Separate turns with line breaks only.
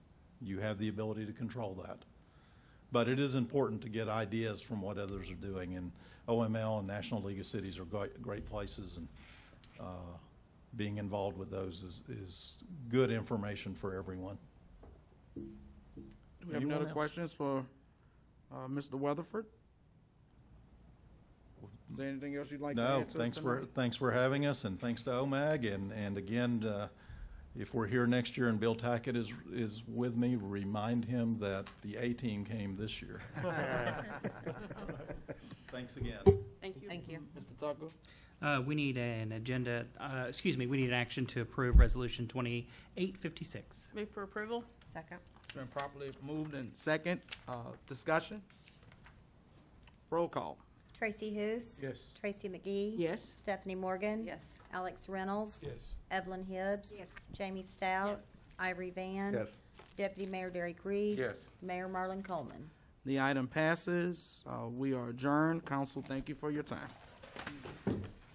You have the ability to control that. But it is important to get ideas from what others are doing, and OML and National League of Cities are great, great places, and uh, being involved with those is, is good information for everyone.
Do we have any
Anyone
other
else?
questions for uh, Mr. Weatherford? Is there anything else you'd like to
No,
add to us
thanks for,
tonight?
thanks for having us, and thanks to OMAG, and, and again, uh, if we're here next year and Bill Tackett is, is with me, remind him that the A-team came this year. Thanks again.
Thank you.
Thank you.
Mr. Tucker?
Uh, we need an agenda, uh, excuse me, we need an action to approve Resolution 2856.
Move for approval?
Second.
It's been properly moved and second. Uh, Discussion? Roll call.
Tracy Hous.
Yes.
Tracy McGee.
Yes.
Stephanie Morgan.
Yes.
Alex Reynolds.
Yes.
Evelyn Hibbs.
Yes.
Jamie Stout. Ivory Van.
Yes.
Deputy Mayor Derek Reed.
Yes.
Mayor Marlon Coleman.
The item passes. Uh, We are adjourned. Council, thank you for your time.